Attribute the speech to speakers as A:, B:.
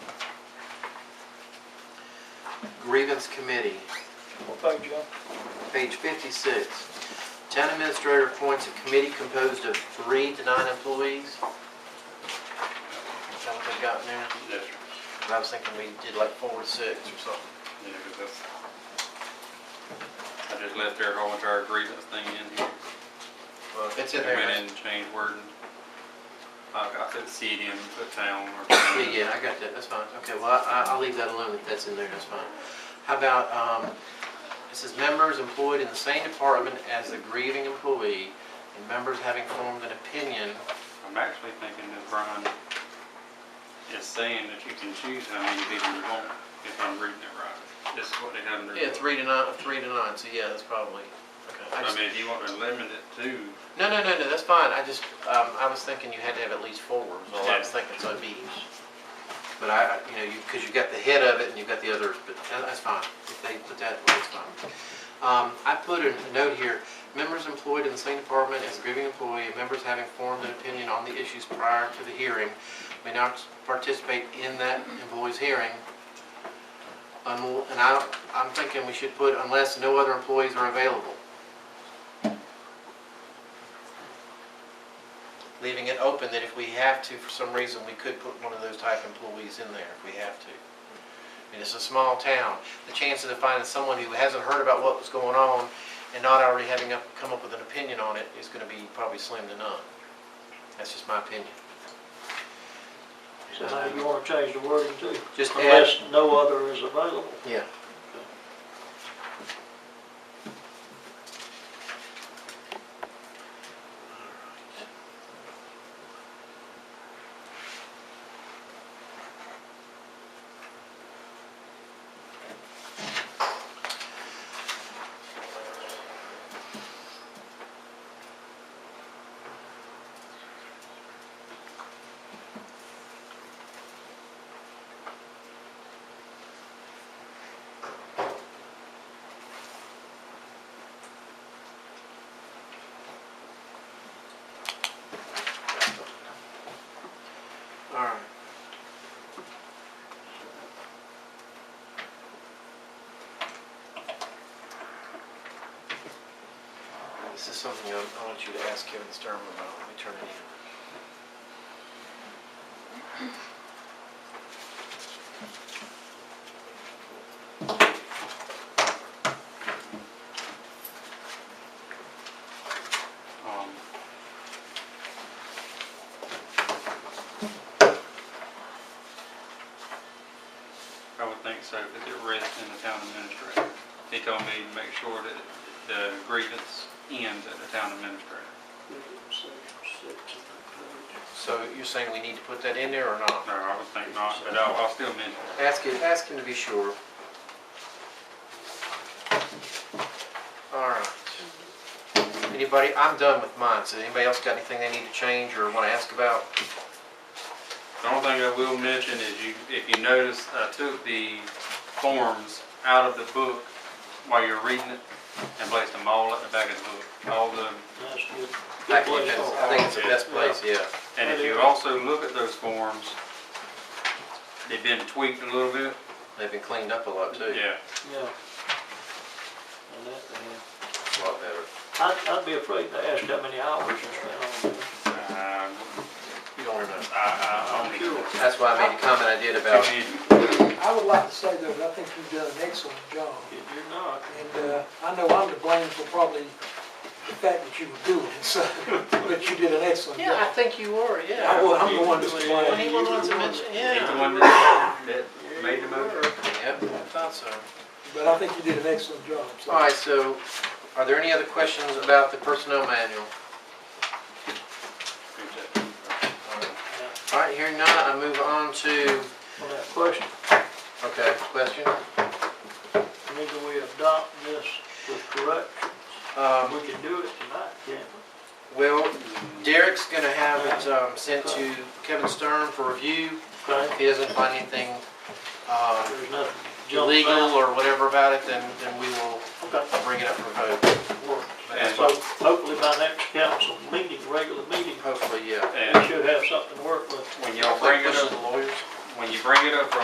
A: grievance committee,
B: What page, John?
A: page fifty-six. Town administrator appoints a committee composed of three to nine employees. Is that what they got in there?
C: Yes, sir.
A: And I was thinking we did like four or six or something.
C: Yeah, 'cause that's- I just left their whole entire grievance thing in here.
A: Well, if it's in there.
C: Went in
A: that's-
C: and changed wording. I I said city and put town or.
A: Yeah, yeah, I got that, that's fine. Okay, well, I, I'll leave that alone if that's in there, that's fine. How about, um, it says members employed in the same department as the grieving employee and members having formed an opinion.
C: I'm actually thinking that Brian is saying that you can choose how many people you want, if I'm reading it right. This is what they have in their.
A: Yeah, three to nine, three to nine, so yeah, that's probably, okay. I
C: I
A: just-
C: mean, if you want to limit it to,
A: No, no, no, no, that's fine. I just, um, I was thinking you had to have at least four, was all I was
C: Yeah.
A: thinking, so it'd be. But I, I- you know, you, because you've got the head of it and you've got the others, but that- that's fine. If they put that, that's fine. Um, I put a note here, members employed in the same department as grieving employee, and members having formed an opinion on the issues prior to the hearing may not participate in that employee's hearing. Un- And I, I'm thinking we should put unless no other employees are available. leaving it open that if we have to, for some reason, we could put one of those type employees in there if we have to. I mean, it's a small town. The chances of finding someone who hasn't heard about what was going on and not already having up, come up with an opinion on it is gonna be probably slim to none. That's just my opinion.
B: So now you want to change the wording too?
A: Just add-
B: Unless no other is available.
A: Yeah. All right. This Uh, is something I I want you to ask Kevin Sturman about when we turn it in.
C: um, I would think so, because it rests in the town administrator. He told me to make sure that the grievance ends at the town administrator.
A: So you're saying we need to put that in there or not?
C: No, I would think not, but I'll, I'll still mention it.
A: Ask him, ask him to be sure. All right. Anybody, I'm done with mine, so anybody else got anything they need to change or want to ask about?
C: The only thing I will mention is you, if you notice, I took the forms out of the book while you're reading it and placed them all at the back of the book, all the
B: That's good.
A: I think that's- I think it's the best place, yeah.
C: And if you also look at those forms, they've been tweaked a little bit.
A: They've been cleaned up a lot too.
C: Yeah.
B: Yeah. And that, uh,
A: It's a lot better.
B: I'd, I'd be afraid to ask that many hours you spent on it.
C: Um, I,
A: You don't remember.
C: I only.
B: Sure.
A: That's why I made the comment I did about,
C: Too many.
D: I would like to say though, that I think you've done an excellent job.
B: If you're not,
D: And uh, I know I'm to blame for probably the fact that you were doing it, so, but you did an excellent
A: yeah, I
D: job.
A: think you were,
D: I
A: yeah.
D: wa- I'm the one that's to
A: When
D: blame.
A: he wants to mention,
C: He's the
A: yeah.
C: one that, that made the motion.
A: Yep, I thought so.
D: But I think you did an excellent job. so.
A: All right, so are there any other questions about the personnel manual? All right, hearing none, I move on to,
B: on that question,
A: okay, question.
B: whether we adopt this with corrections,
A: Um,
B: we can do it tonight, can't we?
A: Well, Derek's gonna have it um, sent to Kevin Stern for review. If
B: Okay,
A: he doesn't find anything uh,
B: there's nothing. jump
A: illegal
B: out.
A: or whatever about it, then, then we will
B: Okay.
A: bring it up for vote.
B: work.
C: And-
B: So hopefully by next council meeting, regular meeting,
A: Hopefully, yeah.
B: we
C: And
B: should have something to work with.
C: when y'all bring it
A: Push the
C: up,
A: lawyers.
C: when you bring it up for